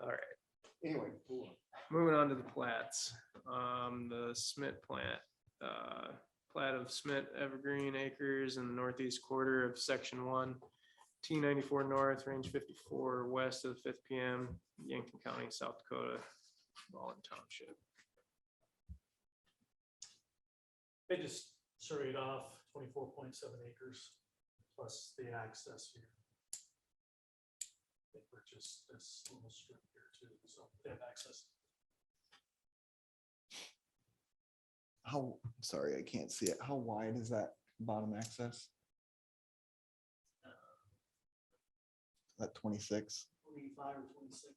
All right, Anyway, cool. moving on to the plats, um, the Smith plant, uh, plat of Smith Evergreen Acres in the northeast quarter of section one. T ninety-four north, range fifty-four west of the fifth PM, Yankton County, South Dakota, Ballin Township. They just surveyed off twenty-four point seven acres plus the access here. They purchased this little strip here too, so they have access. How, sorry, I can't see it. How wide is that bottom access? That twenty-six? Twenty-five or twenty-six.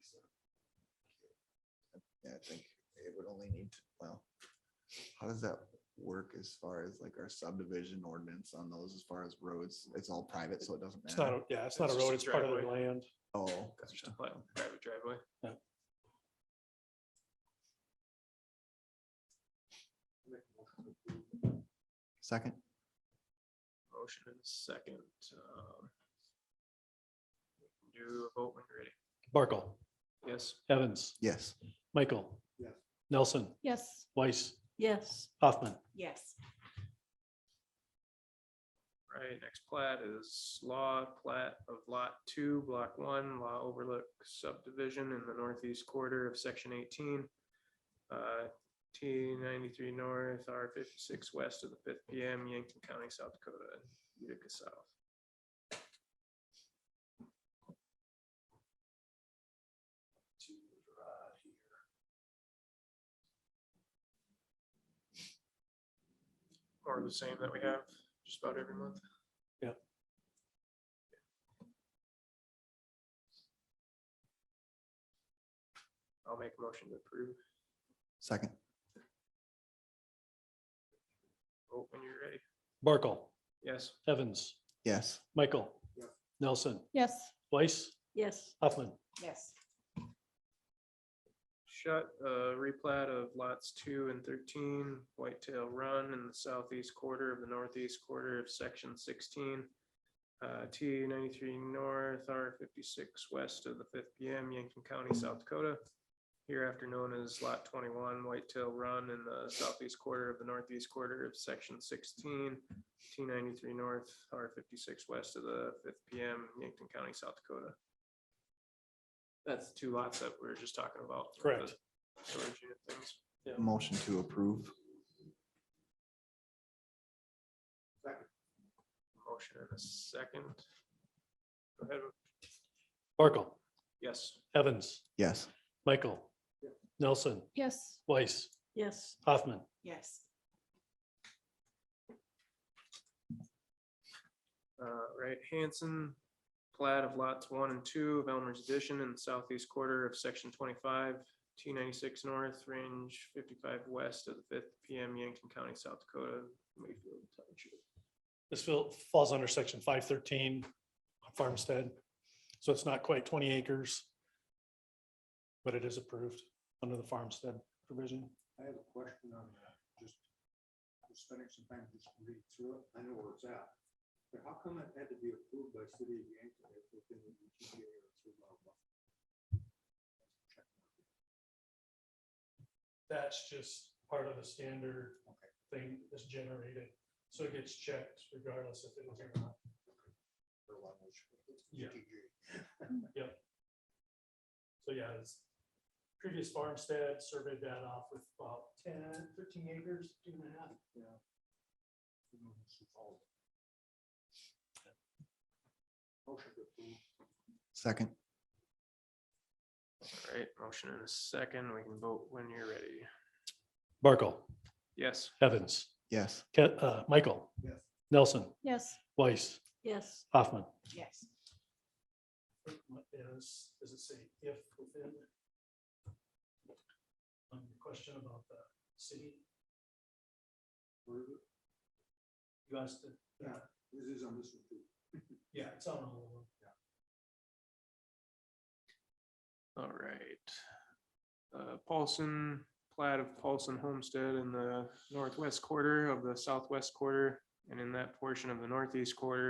Yeah, I think it would only need, to- well, how does that work as far as like our subdivision ordinance on those as far as roads? It's all private, so it doesn't It's not, matter. a- yeah, it's not a It's just road, a it's part of the driveway. land. Oh, It's just a gotcha. plat- private driveway. second, Motion and second. um, Do a vote when you're ready. Barkle, Yes, Evans, yes. Michael. Yes. Nelson, Yes. Weiss, Yes. Hoffman. Yes. right, next plat is law plat of lot two, block one, law overlook subdivision in the northeast quarter of section eighteen. uh, T ninety-three north, R fifty-six west of the fifth PM, Yankton County, South Dakota, Utica South. Or the same that we have just about every month. I'll make a motion to approve. Second, Vote Oh, when you're ready. Barkle, Yes, Evans, yes. Michael. Nelson, Yes. Weiss, Yes. Hoffman. Yes. shut, uh, replat of lots two and thirteen, Whitetail Run in the southeast quarter of the northeast quarter of section sixteen. Uh, T ninety-three north, R fifty-six west of the fifth PM, Yankton County, South Dakota. Hereafter known as Lot twenty-one, Whitetail Run in the southeast quarter of the northeast quarter of section sixteen. T ninety-three north, R fifty-six west of the fifth PM, Yankton County, South Dakota. That's two lots that we were just talking about. with the Correct. Storage unit things. Motion to approve, Motion and a second. Go ahead. Barkle, Yes, Evans, yes. Michael. Nelson, Yes. Weiss, Yes. Hoffman. Yes. uh, right, Hanson, plat of lots one and two of Elmer's Addition in the southeast quarter of section twenty-five, T ninety-six north, range fifty-five west of the fifth PM, Yankton County, South Dakota, Mayfield Township. This fill- falls under section five thirteen farmstead, so it's not quite twenty acres. But it is approved under the farmstead provision. I have a question on that, just, just spending some time just reading through it, I know where it's at. But how come it had to be approved by city of Yankton if within the GTA or through blah blah? That's just part of the standard thing that's generated, so it gets checked regardless if it was or not. Or along those- Yeah. GTJ. So yeah, it's previous farmstead surveyed that off with about 10, 13 acres, two and a half. You know, it's all- Motion to approve. Second, All right, motion and a second. We can vote when you're ready. Barkle, Yes, Evans, yes. Ke- uh, Michael. Yes. Nelson, Yes. Weiss, Yes. Hoffman. Yes. Is, does it say if within? On your question about the city, Where is it? you asked it, This is on this one too. yeah, it's on all of them. all right. Uh, Paulson, plat of Paulson Homestead in the northwest quarter of the southwest quarter and in that portion of the northeast quarter